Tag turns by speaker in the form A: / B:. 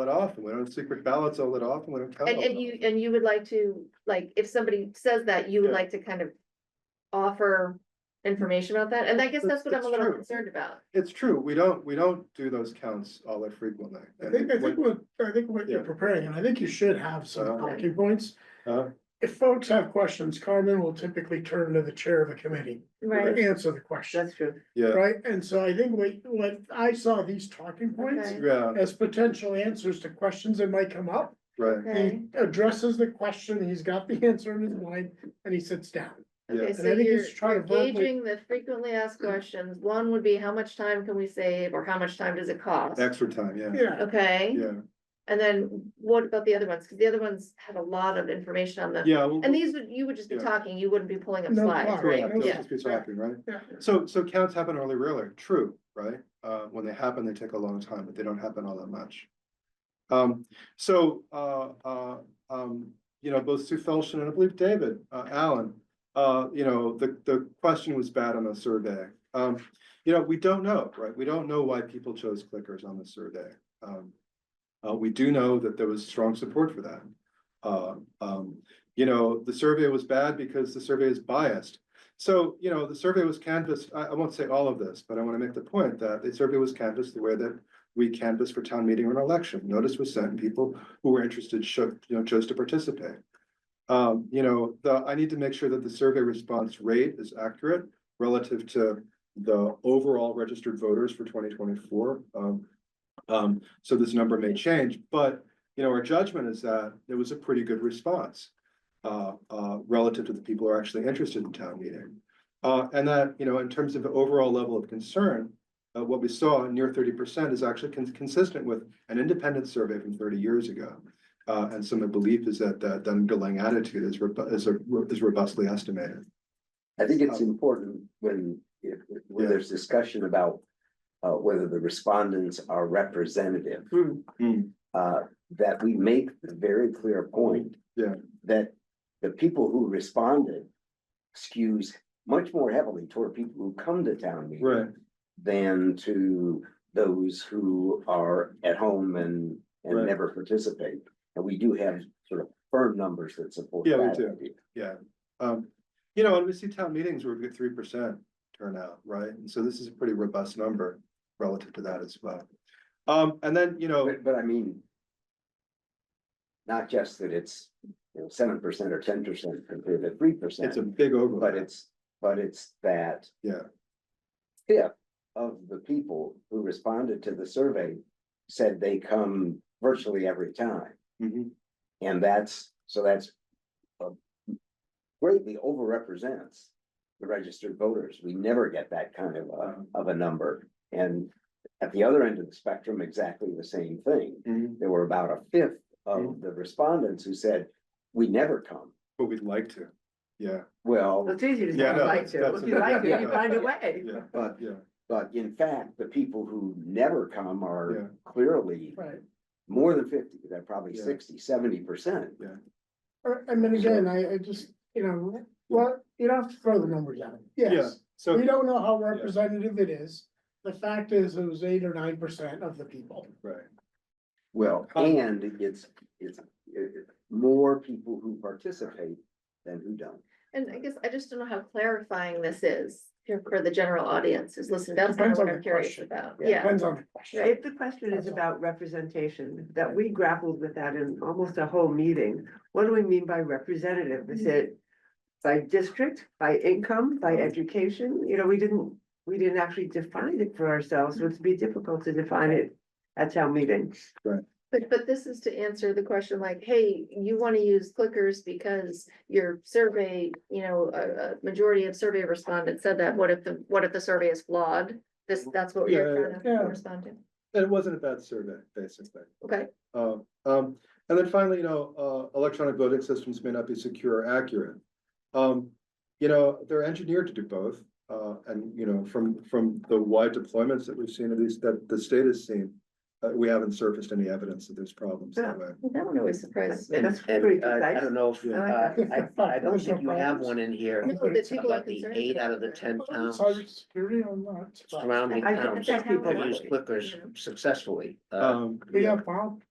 A: it off, and we don't secret ballots all it off, and we don't count.
B: And,
A: all
B: and
A: it
B: you, and you would like to, like, if somebody says that, you would
A: Yeah.
B: like to kind of offer information about that, and I guess
A: That's-
B: that's what I'm a
A: that's
B: little
A: true.
B: concerned about.
A: It's true, we don't, we don't do those counts all that frequently.
C: I think, I think what, I think what you're
A: Yeah.
C: preparing, and I think you should have some
A: Uh-huh.
C: talking points.
A: Uh-huh.
C: If folks have questions, Carmen will typically turn to the chair of a committee to answer the question,
B: true.
A: Yeah,
C: right? And so I think what, what I saw these talking points
B: Okay.
A: yeah,
C: as potential answers to questions that might come up.
A: right,
B: Okay,
C: He addresses the question, he's got the answer in his mind, and he sits down.
B: okay,
A: yeah,
B: so
C: And I think you
B: you're
C: should try to verbally-
B: gauging the frequently asked
A: Mm.
B: questions, one would be how much time can we save, or how much time does it cost?
A: extra time, yeah,
C: Yeah,
B: Okay,
A: yeah,
B: and then what about the other ones, cause the other ones had a lot of information on them,
A: yeah. well,
B: and these would, you would just be
A: Yeah.
B: talking, you wouldn't be pulling up
C: No
B: slides,
C: talk,
B: right?
A: Correct, they'll
B: Yeah,
A: just be talking, right?
C: yeah.
A: So, so counts happen early, really, true, right? Uh, when they happen, they take a long time, but they don't happen all that much. Um, so, uh, uh, um, you know, both Sue Felshen and I believe David, uh, Allen, uh, you know, the, the question was bad on the survey. Um, you know, we don't know, right? We don't know why people chose clickers on the survey. Um, uh, we do know that there was strong support for that. Uh, um, you know, the survey was bad because the survey is biased. So, you know, the survey was canvassed, I, I won't say all of this, but I want to make the point that the survey was canvassed the way that we canvassed for town meeting or an election. Notice was sent and people who were interested should, you know, chose to participate. Um, you know, the, I need to make sure that the survey response rate is accurate relative to the overall registered voters for twenty twenty-four. Um, um, so this number may change, but, you know, our judgment is that it was a pretty good response uh, uh, relative to the people who are actually interested in town meeting. Uh, and that, you know, in terms of the overall level of concern, uh, what we saw near thirty percent is actually con- consistent with an independent survey from thirty years ago. Uh, and so my belief is that, that the underlying attitude is, robu- is, a- is robustly estimated.
D: I think it's
A: Um,
D: important when, if, when
A: Yeah.
D: there's discussion about uh, whether the respondents are representative.
B: Hmm.
A: Hmm.
D: Uh, that we make the very clear point.
A: Yeah.
D: That the people who responded skews much more heavily toward people who come to town meeting. Than to those who are at home and,
A: Right.
D: and never participate. And we do have sort of firm numbers that support
A: Yeah, we
D: that
A: do.
D: idea.
A: Yeah, um, you know, and we see town meetings where we get three percent turnout, right? And so this is a pretty robust number relative to that as well. Um, and then, you know,
D: But, but I mean. Not just that it's, you know, seven percent or ten percent compared to three percent,
A: it's a big overlap.
D: but it's, but it's that.
A: Yeah.
D: Fifth of the people who responded to the survey said they come virtually every time,
A: Mhm.
D: and that's, so that's. uh, Greatly overrepresents the registered voters. We never get that kind of, uh,
A: Uh-huh.
D: of a number. And at the other end of the spectrum, exactly the same thing
A: Mhm.
D: there were about a fifth of
A: Mhm.
D: the respondents who said, we never come.
A: But we'd like to, yeah,
D: Well,
E: easy
A: Yeah, no, that's- that's a-
E: way.
A: yeah,
D: but,
A: yeah,
D: but in fact, the people who never come
A: Yeah.
D: are clearly
C: Right.
D: more than fifty, they're probably
A: Yeah.
D: sixty, seventy percent.
C: Uh, I mean, again, I, I just, you know, well, you don't have to throw the numbers out.
A: yeah,
C: Yes,
A: so.
C: we don't know how representative it is. The fact is, it was eight or nine percent of the people.
A: Right,
D: Well,
A: Um,
D: and it's, it's, it- more people who participate than who don't.
B: And I guess I just don't know how clarifying this is here for the general audience who's listening. That's kind of
C: Depends
B: what
C: on
B: I'm
C: the
B: curious
C: question.
B: about.
D: Yeah.
B: Yeah,
C: Depends on the question.
E: If the question
C: That's
E: is
C: all.
E: about representation, that we grappled with that in almost a whole meeting, what do we mean by representative? Is it by district, by income, by education? You know, we didn't, we didn't actually define it for ourselves, so it'd be difficult to define it at town meeting.
B: but, but this is to answer the question like, hey, you want to use clickers because your survey, you know, a, a majority of survey respondents said that. What if the, what if the survey is flawed? This, that's what we
A: Yeah,
B: are trying
C: yeah.
B: to respond to.
A: and it wasn't a bad survey, basically.
B: Okay,
A: Uh, um, and then finally, you know, uh, electronic voting systems may not be secure or accurate. Um, you know, they're engineered to do both, uh, and, you know, from, from the wide deployments that we've seen, at least that the state has seen. Uh, we haven't surfaced any evidence that there's problems that way.
B: that one always surprises me.
E: That's pretty
F: And uh, I
E: precise.
F: don't know, if,
A: I
F: uh,
E: like
F: I, I don't
C: There's no
F: think you have
C: problems.
F: one in here
B: No, that people are
F: about the
B: concerned
F: eight
B: about
F: out of the
B: that.
F: ten towns
C: Cybersecurity or not?
F: surrounding
E: I- I think
F: towns
E: that's
F: that people
E: how it
F: use
E: is.
F: clickers successfully. Uh,
A: Um,
C: We have Bob.